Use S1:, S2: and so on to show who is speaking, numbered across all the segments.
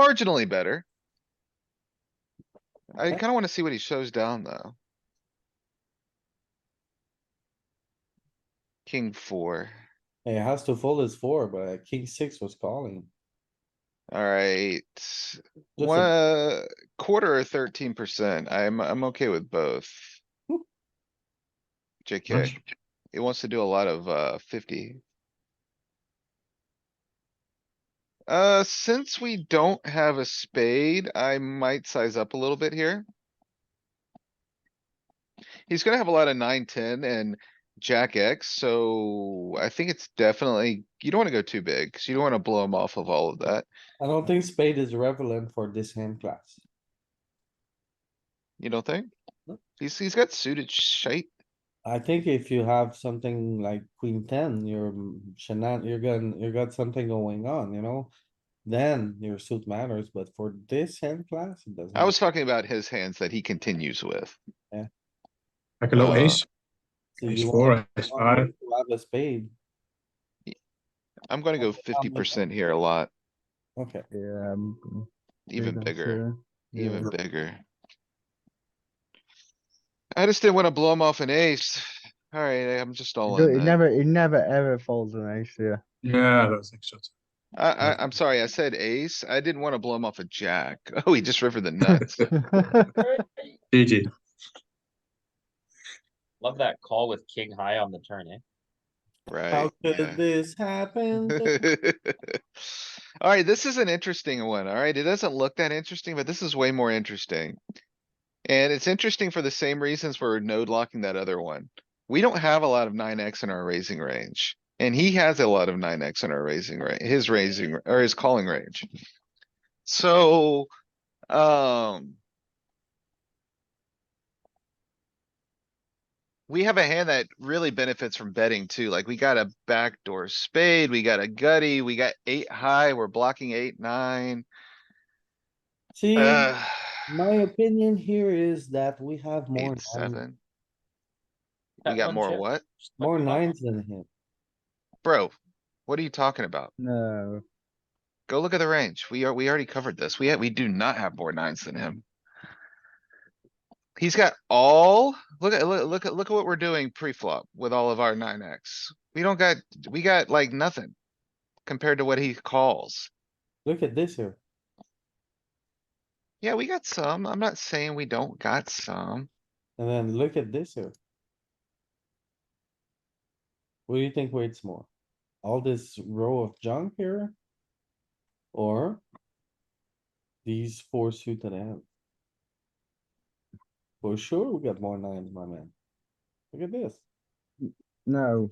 S1: marginally better. I
S2: Okay.
S1: kinda wanna see what he shows down, though. King four,
S2: It has to fold his four, but uh, king six was calling.
S1: alright,
S2: Just a-
S1: one, uh, quarter or thirteen percent, I'm, I'm okay with both.
S2: Whoop.
S1: JK, it wants to do a lot of, uh, fifty. Uh, since we don't have a spade, I might size up a little bit here. He's gonna have a lot of nine, ten and jack X, so I think it's definitely, you don't wanna go too big, cause you don't wanna blow him off of all of that.
S2: I don't think spade is relevant for this hand class.
S1: You don't think?
S2: Nope.
S1: He's, he's got suited shape.
S2: I think if you have something like queen ten, you're shenan, you're gonna, you got something going on, you know? Then your suit matters, but for this hand class, it doesn't.
S1: I was talking about his hands that he continues with.
S3: Like a low
S1: Uh,
S3: ace,
S2: So you
S3: ace
S2: want-
S3: four, ace
S2: you want
S3: five.
S2: to Have a spade,
S1: I'm gonna go fifty percent here a lot,
S2: okay,
S4: Yeah. I'm- I'm
S1: even
S4: not
S1: bigger,
S4: sure. Yeah.
S1: even bigger. I just didn't wanna blow him off an ace. Alright, I'm just all
S4: It do-
S1: in.
S4: It
S1: then.
S4: never, it never ever folds an ace, yeah.
S3: Yeah, I don't think so. too.
S1: I, I, I'm sorry, I said ace. I didn't wanna blow him off a jack. Oh, he just rivered the nuts.
S3: GG.
S5: Love that call with king high on the turn, eh?
S1: Right?
S2: how could this happen?
S1: Alright, this is an interesting one, alright? It doesn't look that interesting, but this is way more interesting. And it's interesting for the same reasons we're node locking that other one. We don't have a lot of nine X in our raising range. And he has a lot of nine X in our raising ra- his raising or his calling range. So, um. We have a hand that really benefits from betting too. Like we got a backdoor spade, we got a gutty, we got eight high, we're blocking eight, nine.
S2: See,
S1: Uh,
S2: my opinion here is that we have more,
S1: eight,
S2: nines-
S1: seven. We
S5: That
S1: got
S5: one
S1: more
S5: chip,
S1: what?
S5: just like
S2: more
S5: the button.
S2: nines than him.
S1: Bro, what are you talking about?
S4: No,
S1: Go look at the range. We are, we already covered this. We, ha- we do not have more nines than him. He's got all, look at, look, look at, look at what we're doing pre-flop with all of our nine X. We don't got, we got like nothing compared to what he calls.
S2: Look at this here.
S1: Yeah, we got some. I'm not saying we don't got some.
S2: And then look at this here. What do you think weights more? All this row of junk here? Or? These four suited hands? For sure, we got more nines, my man. Look at this.
S4: no.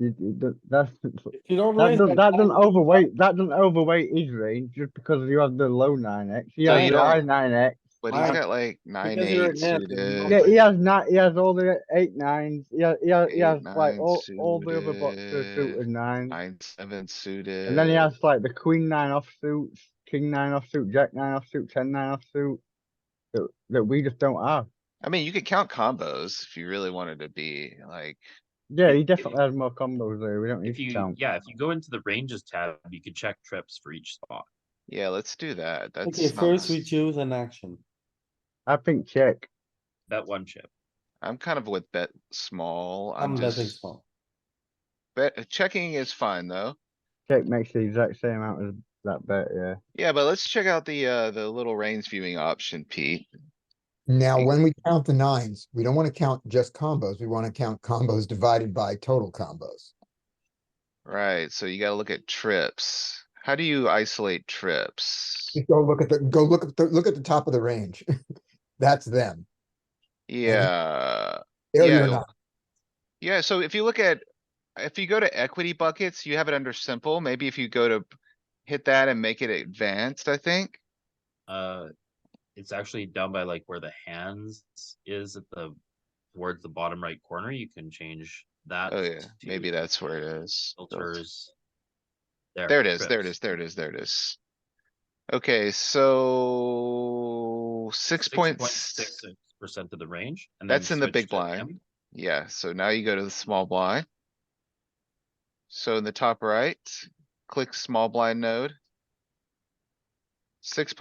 S4: You- you don't- that's, that
S2: If you don't raise.
S4: doesn't,
S2: that
S4: that doesn't
S2: nine,
S4: overweight, that doesn't overweight his range just because you have the low nine X. He
S1: No,
S4: has
S1: you
S4: the
S1: don't.
S4: high nine X.
S1: But he's
S2: Why?
S1: got like nine,
S2: Because you're a
S1: eight
S2: nerd and you don't
S4: Yeah,
S1: suited.
S4: he has not, he has all the eight nines, he has, he has, he
S1: Eight,
S4: has like
S1: nine
S4: all, all the other boxes are
S1: suited,
S4: suited nines.
S1: Nine, seven suited.
S4: And then he has like the queen nine offsuit, king nine offsuit, jack nine offsuit, ten nine offsuit. That, that we just don't have.
S1: I mean, you could count combos if you really wanted to be like,
S4: Yeah, he
S5: If-
S4: definitely has more combos there, we don't need
S5: If
S4: to
S5: you,
S4: count.
S5: yeah, if you go into the ranges tab, you could check trips for each spot.
S1: yeah, let's do that. That's.
S2: Okay,
S1: not mis-
S2: first we choose an action.
S4: I think check.
S5: That one chip.
S1: I'm kind of with bet small. I'm
S2: I'm betting
S1: just,
S2: small.
S1: bet, uh, checking is fine though.
S4: Check makes the exact same amount as that bet, yeah.
S1: Yeah, but let's check out the, uh, the little range viewing option, Pete.
S6: Now,
S1: Eight.
S6: when we count the nines, we don't want to count just combos. We want to count combos divided by total combos.
S1: Right, so you gotta look at trips. How do you isolate trips?
S6: Just go look at the, go look at the, look at the top of the range. That's them.
S1: Yeah.
S6: Area
S1: Yeah.
S6: nine.
S1: Yeah, so if you look at, if you go to equity buckets, you have it under simple. Maybe if you go to hit that and make it advanced, I think.
S5: Uh, it's actually done by like where the hands is at the, towards the bottom right corner. You can change that.
S1: Oh yeah, maybe
S5: to
S1: that's where it is.
S5: Filters.
S1: There it is, there it
S5: trips.
S1: is, there it is, there it is. Okay, so six point,
S5: six percent of the range. and then
S1: That's in the
S5: switch
S1: big
S5: to him.
S1: blind. yeah, so now you go to the small blind. So in the top right, click small blind node. Six